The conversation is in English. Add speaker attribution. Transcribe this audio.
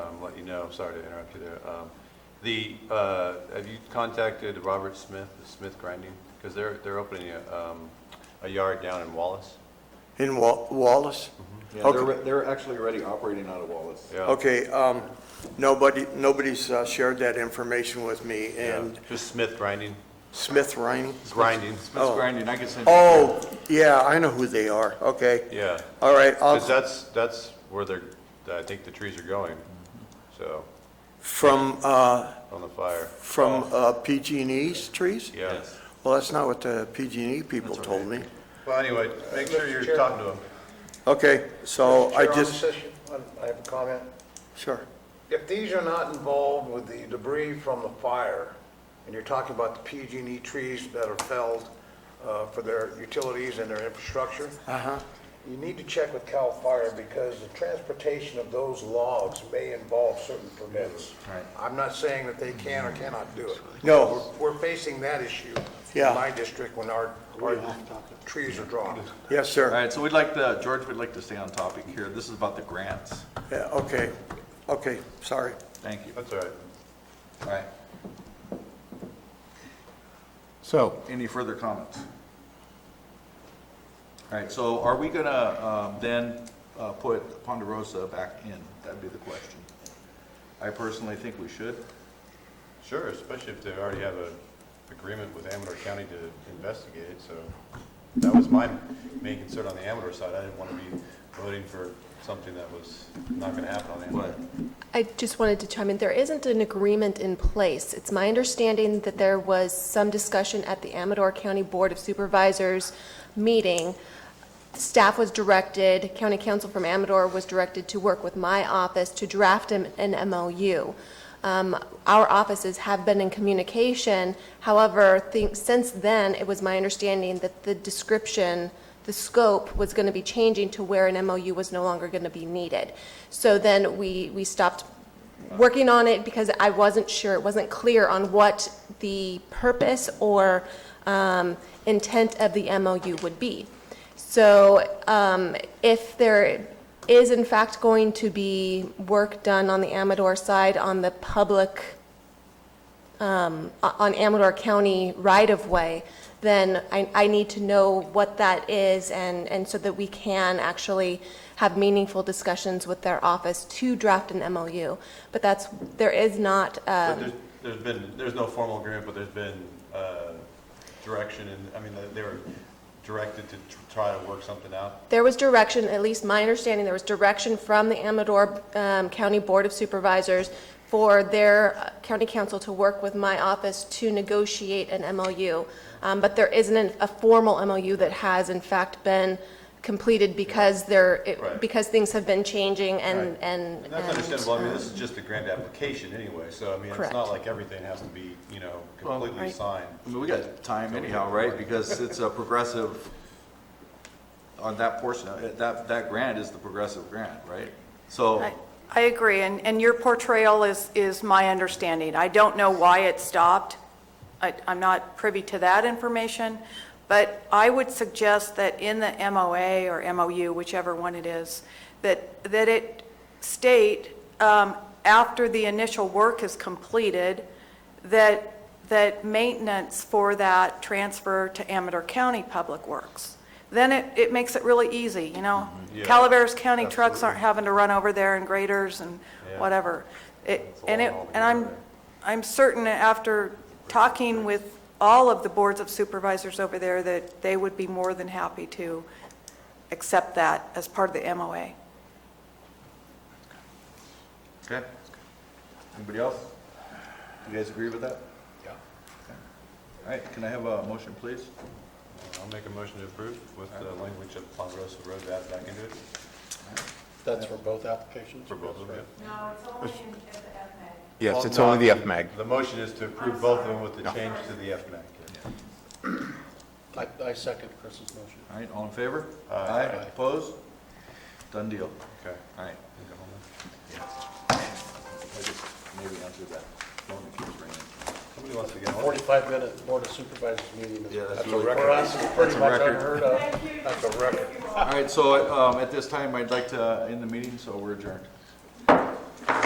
Speaker 1: No, I'm sorry to interrupt you there. Um, The, uh, have you contacted Robert Smith, the Smith Grinding? Because they're, they're opening a um, a yard down in Wallace.
Speaker 2: in Wa- Wallace?
Speaker 1: Mm-hmm.
Speaker 3: Yeah, they're,
Speaker 2: Okay.
Speaker 3: re- they're actually already operating out of Wallace.
Speaker 1: Yeah.
Speaker 2: Okay, um, nobody, nobody's uh, shared that information with me,
Speaker 1: Yeah.
Speaker 2: and
Speaker 1: Just Smith Grinding,
Speaker 2: Smith Riney?
Speaker 1: grinding,
Speaker 3: Smith's grinding, I can send you.
Speaker 2: Oh, yeah, I know who they are, okay.
Speaker 1: yeah.
Speaker 2: All right, um, I'll-
Speaker 1: Because that's, that's where they're, I think the trees are going, so,
Speaker 2: from, uh,
Speaker 1: on the fire.
Speaker 2: from uh, PG&E's trees?
Speaker 1: Yeah.
Speaker 3: Yes.
Speaker 2: Well, that's not what the PG&E E people told me.
Speaker 1: Well, anyway, make sure
Speaker 4: Mr.
Speaker 1: you're
Speaker 4: Chair.
Speaker 1: talking to them.
Speaker 2: Okay, so I
Speaker 4: Chair, on
Speaker 2: just,
Speaker 4: this issue, I- I have a comment.
Speaker 2: sure.
Speaker 4: If these are not involved with the debris from the fire, and you're talking about the PG&E E trees that are felled uh, for their utilities and their infrastructure,
Speaker 2: Uh-huh.
Speaker 4: you need to check with CAL FIRE because the transportation of those logs may involve certain permits. I'm not saying that they can or cannot do it.
Speaker 2: No.
Speaker 4: We're we're facing that issue
Speaker 2: Yeah.
Speaker 4: in my district when our, our trees are drawn.
Speaker 2: Yes,
Speaker 3: All
Speaker 2: sir.
Speaker 3: right, so we'd like to, George would like to stay on topic here. This is about the grants.
Speaker 2: Yeah, okay, okay, sorry.
Speaker 3: Thank you.
Speaker 1: That's all right.
Speaker 3: All right.
Speaker 5: So,
Speaker 3: Any further comments? All right, so are we gonna um, then uh, put Ponderosa back in? That'd be the question. I personally think we should.
Speaker 1: Sure, especially if they already have an agreement with Amador County to investigate it, so that was my main concern on the Amador side. I didn't want to be voting for something that was not going to happen on Amador.
Speaker 6: I just wanted to chime in. There isn't an agreement in place. It's my understanding that there was some discussion at the Amador County Board of Supervisors meeting. Staff was directed, county council from Amador was directed to work with my office to draft an an MOU. Um, Our offices have been in communication. However, think- since then, it was my understanding that the description the scope was going to be changing to where an MOU was no longer going to be needed. So then we, we stopped working on it because I wasn't sure, it wasn't clear on what the purpose or um, intent of the MOU would be. So um, if there is in fact going to be work done on the Amador side on the public on Amador County right-of-way, then I, I need to know what that is and, and so that we can actually have meaningful discussions with their office to draft an MOU. But that's, there is not,
Speaker 1: But
Speaker 6: um,
Speaker 1: there's, there's been, there's no formal agreement, but there's been uh, direction, and, I mean, they were directed to tr- try to work something out.
Speaker 6: there was direction, at least my understanding, there was direction from the Amador um, County Board of Supervisors for their uh, county council to work with my office to negotiate an MOU. Um, But there isn't an- a formal MOU that has in fact been completed because there, it-
Speaker 1: Right.
Speaker 6: because things have been changing and, and. um,
Speaker 1: And that's understandable, I mean, this is just a grant application anyway, so, I mean, it's
Speaker 6: Correct.
Speaker 1: not like everything has to be, you know, completely
Speaker 6: Right.
Speaker 1: signed.
Speaker 3: I mean, we got time anyhow, right? Because it's a progressive, on that portion, of it, that, that grant is the progressive grant, right? So,
Speaker 7: I- I agree, and, and your portrayal is, is my understanding. I don't know why it stopped. I, I'm not privy to that information, but I would suggest that in the MOA or MOU, whichever one it is, that, that it state, um, after the initial work is completed, that, that maintenance for that transfer to Amador County Public Works. Then it, it makes it really easy, you know?
Speaker 1: Mm-hmm. Yeah.
Speaker 7: Calaveras County trucks
Speaker 1: Absolutely.
Speaker 7: aren't having to run over there and graders and
Speaker 1: Yeah.
Speaker 7: whatever. It,
Speaker 1: It's a
Speaker 7: and it,
Speaker 1: long haul to
Speaker 7: and
Speaker 1: get
Speaker 7: I'm,
Speaker 1: there.
Speaker 7: I'm certain after talking with all of the boards of supervisors over there that they would be more than happy to accept that as part of the MOA.
Speaker 3: okay. Anybody else? You guys agree with that?
Speaker 4: Yeah.
Speaker 3: All right, can I have a motion, please?
Speaker 1: I'll make a motion to approve with the language of Ponderosa Road added back into it
Speaker 8: That's for both applications?
Speaker 1: for both of them.
Speaker 7: No, it's only in the FMA.
Speaker 5: yes, it's only the FMAG.
Speaker 1: The motion is to approve both of them with the change to the FMAC.
Speaker 8: I, I second Chris's motion.
Speaker 3: All right, all in favor? Aye. Opposed? Done deal.
Speaker 1: Okay.
Speaker 3: All right. I just Maybe answer that. Phone keeps ringing.
Speaker 1: Somebody wants to get on.
Speaker 8: 45-minute Board of Supervisors meeting. is-
Speaker 3: Yeah, that's
Speaker 8: For
Speaker 3: really-
Speaker 8: us, it's pretty
Speaker 3: a
Speaker 8: much
Speaker 3: record.
Speaker 8: unheard of.
Speaker 4: That's a record.
Speaker 3: All right, so um, at this time, I'd like to end the meeting, so we're adjourned.